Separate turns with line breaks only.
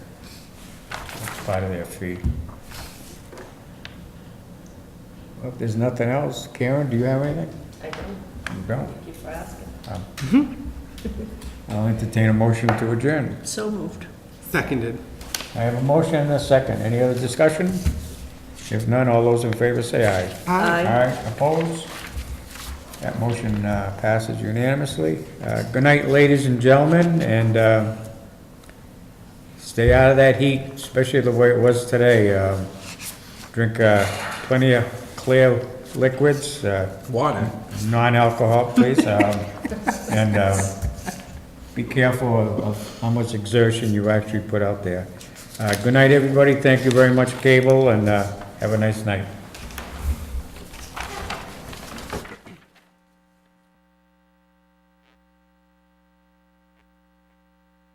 part of their fee. Well, If there's nothing else, Karen, do you have anything?
I do.
You don't?
Thank you for asking.
I'll entertain a motion to adjourn.
So moved.
Seconded.
I have a motion and a second. Any other discussion? If none, all those in favor say aye.
Aye.
Aye, opposed? That motion uh, passes unanimously. Uh, Good night, ladies and gentlemen, and uh, stay out of that heat, especially the way it was today. Um, Drink uh, plenty of clear liquids, uh,
Water.
non-alcohol, please. um, And um, be careful of- of how much exertion you actually put out there. Uh, Good night, everybody. Thank you very much, Cable, and uh, have a nice night.